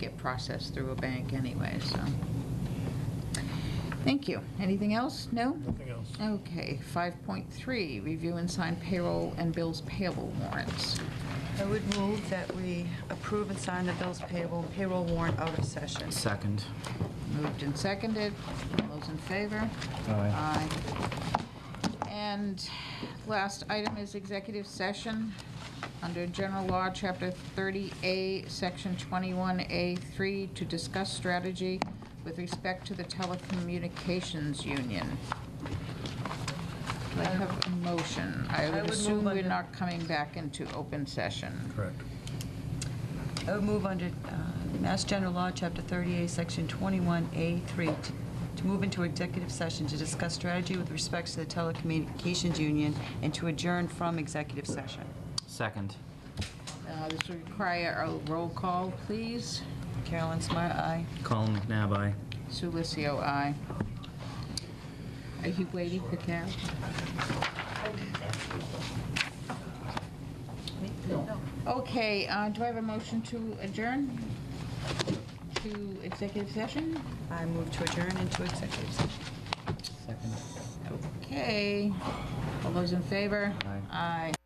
get processed through a bank anyway, so. Thank you. Anything else? No? Nothing else. Mm. Okay, 5.3, review and sign payroll and bills payable warrants. I would move that we approve and sign the bills payable, payroll warrant out of session. Second. Moved and seconded. All those in favor? Aye. Aye. And last item is executive session. Under General Law, Chapter 30A, Section 21A3, to discuss strategy with respect to the telecommunications union. Do I have a motion? I I would would move assume we're under- not coming back into open session. Correct. I would move under uh, Mass General Law, Chapter 38, Section 21A3, t- to move into executive session to discuss strategy with respect to the telecommunications union and to adjourn from executive session. Second. Uh, This would require a roll call, please. Carolyn Smart, aye. Colin McNabb, aye. Sulicio, aye. Are you waiting for Carol? Okay, uh, do I have a motion to adjourn to executive session? I move to adjourn into executive session. Second. Okay. All those in favor? Aye. Aye.